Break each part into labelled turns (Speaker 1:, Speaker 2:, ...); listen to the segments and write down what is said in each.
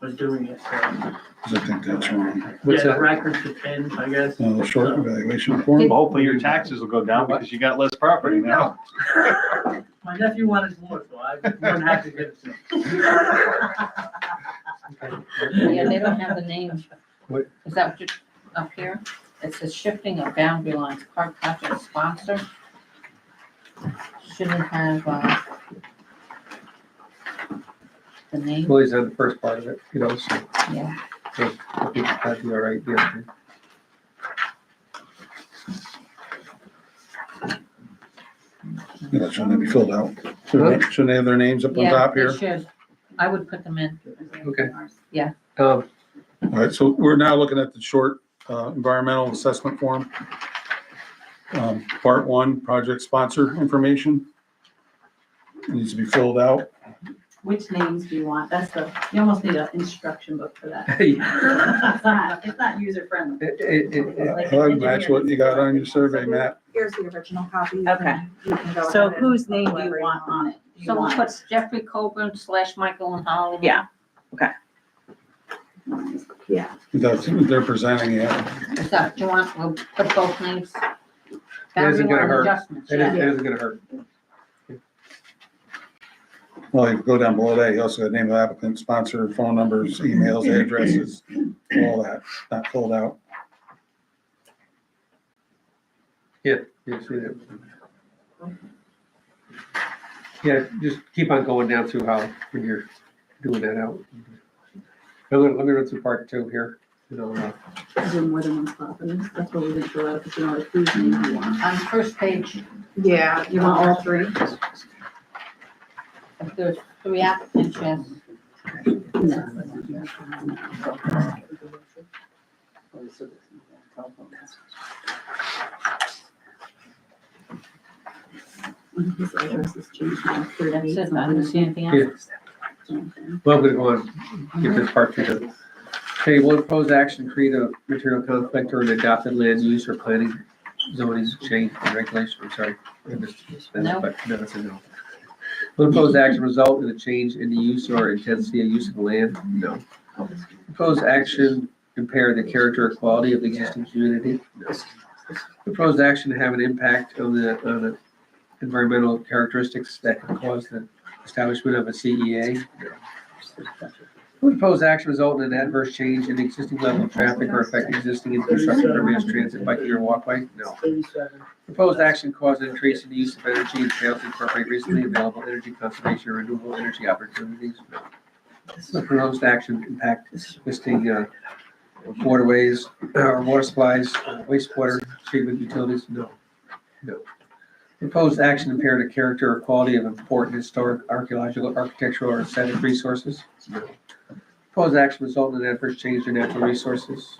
Speaker 1: was doing it. so-
Speaker 2: 'cause I think that's wrong.
Speaker 1: Yeah,
Speaker 3: What's
Speaker 1: the
Speaker 3: that?
Speaker 1: record depends, I guess.
Speaker 2: Uh, short evaluation form.
Speaker 4: Well, Hopefully your taxes will go down because you got less property now.
Speaker 1: My nephew wanted more, so I wouldn't have to give it to him.
Speaker 5: Yeah, they don't have the name.
Speaker 3: What?
Speaker 5: Is that what you, up here? It says shifting of boundary lines, park project sponsor. Shouldn't have, uh, the name,
Speaker 3: Well, he's had the first part of it, you know, so
Speaker 5: yeah.
Speaker 3: I think that'd be all right. yeah.
Speaker 2: Yeah, that shouldn't be filled out. Shouldn't they- shouldn't they have their names up on
Speaker 5: Yeah,
Speaker 2: top
Speaker 5: it
Speaker 2: here?
Speaker 5: should. I would put them in.
Speaker 3: Okay.
Speaker 5: Yeah.
Speaker 3: Um,
Speaker 2: All right, so we're now looking at the short uh, environmental assessment form. Um, Part one, project sponsor information. Needs to be filled out.
Speaker 6: Which names do you want? That's the, you almost need an instruction book for that.
Speaker 3: hey,
Speaker 6: It's not, it's not user friendly.
Speaker 3: it- it- it- it-
Speaker 6: Like
Speaker 2: Uh, That's what you got on your survey, Matt.
Speaker 7: Here's the original copy.
Speaker 6: Okay. So whose name do you want on it? Do you
Speaker 5: Someone
Speaker 6: want-
Speaker 5: puts Jeffrey Coburn slash Michael and Holly.
Speaker 6: Yeah.
Speaker 2: That's, they're presenting it.
Speaker 5: Is that, do you want, we'll put both names. Boundary
Speaker 3: Doesn't gonna
Speaker 5: line
Speaker 3: hurt.
Speaker 5: adjustments,
Speaker 3: it is-
Speaker 5: yeah.
Speaker 3: it isn't gonna hurt.
Speaker 2: Well, you go down below that, you also got name of applicant, sponsor, phone numbers, emails, addresses, all that, not filled out.
Speaker 3: You see that? Yeah, just keep on going down through how, when you're doing that out. I'm gonna, let me run through part two here. and I'll, uh,
Speaker 6: Is there more than one spot for this? That's what we didn't fill out, because you know, whose name you want.
Speaker 5: On first page,
Speaker 7: Yeah.
Speaker 6: You want all three?
Speaker 5: if there's three applicants, yes.
Speaker 6: His address is changed now,
Speaker 5: That
Speaker 6: thirty.
Speaker 5: says, I don't see anything else.
Speaker 3: Yeah. Well, I'm gonna go on, get this part through. here. Okay, will proposed action create a material conflict or an adopted land use or planning zoning change or regulation, I'm sorry. I missed that,
Speaker 5: No.
Speaker 3: But no, it's a no. Will proposed action result in a change in the use or intensity of use of land? No. Proposed action impair the character or quality of the existing community? No. Proposed action have an impact on the, on the environmental characteristics that could cause the establishment of a CEA? Would proposed action result in an adverse change in the existing level of traffic or affect existing infrastructure, mass transit, biking or walkway? No. Proposed action cause an increase in the use of energy and fails to incorporate recently available energy conservation or renewable energy opportunities? No. Would proposed action impact existing uh, waterways, uh, or water supplies, uh, wastewater treatment utilities? No. No. Proposed action impair the character or quality of important historic, archaeological, architectural, or aesthetic resources? Proposed action result in adverse change to natural resources.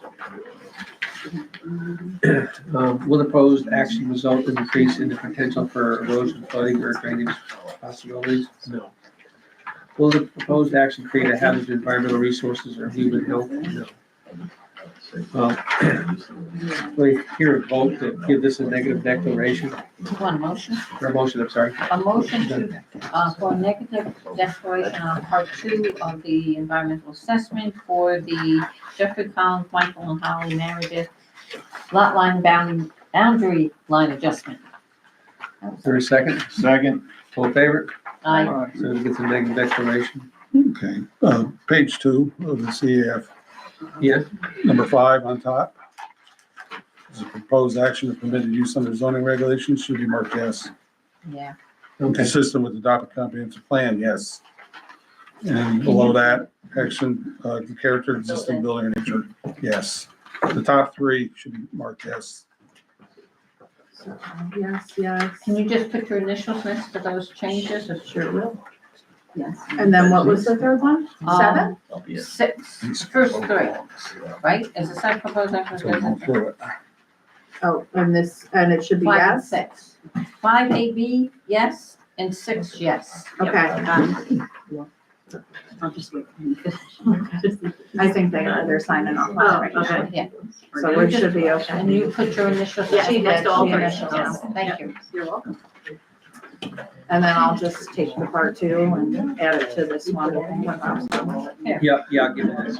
Speaker 3: Um, Will the proposed action result in increase in the potential for erosion, flooding, or drainage possibilities? No. Will the proposed action create a hazard to environmental resources or human health? No. Well, we hear a vote to give this a negative declaration,
Speaker 5: Do you want a motion?
Speaker 3: or a motion, I'm sorry.
Speaker 5: A motion to, uh, for negative declaration on part two of the environmental assessment for the Jeffrey Collins, Michael and Holly Meredith lot line bound, boundary line adjustment. That
Speaker 3: Is
Speaker 5: was-
Speaker 3: there a second?
Speaker 4: Second,
Speaker 3: All in favor?
Speaker 5: I,
Speaker 3: So we get the negative declaration.
Speaker 2: Okay, uh, page two of the CAF,
Speaker 3: Yes?
Speaker 2: number five on top. Is a proposed action of permitted use under zoning regulations should be marked yes.
Speaker 5: yeah,
Speaker 3: Okay.
Speaker 2: Consistent with the adopted comprehensive plan, yes. And below that, action, uh, character, existing building or nature, yes. The top three should be marked yes.
Speaker 7: Yes, yes.
Speaker 5: can you just put your initials next to those changes? It's
Speaker 6: Sure will. Yes.
Speaker 7: And then what was the third one? Seven?
Speaker 5: um, Six, first three, right, is the second proposed
Speaker 2: So we'll go
Speaker 5: action.
Speaker 2: through it.
Speaker 7: Oh, and this, and it should be
Speaker 5: Five and
Speaker 7: yes?
Speaker 5: six. Five A B, yes, and six, yes.
Speaker 7: Okay,
Speaker 6: Um, I'll just wait. for him to finish.
Speaker 7: I think they, they're signing off on it right
Speaker 6: Oh, okay.
Speaker 7: now.
Speaker 5: Yeah,
Speaker 7: So we should be okay.
Speaker 5: and you put your initials.
Speaker 6: Yeah,
Speaker 5: She
Speaker 6: next
Speaker 5: did,
Speaker 6: to all
Speaker 5: she
Speaker 6: her
Speaker 5: initials.
Speaker 6: initials.
Speaker 5: Thank you.
Speaker 6: You're welcome.
Speaker 7: And then I'll just take the part two and add it to this one. when Rob's done with it.
Speaker 3: Yeah, yeah, I'll give it this.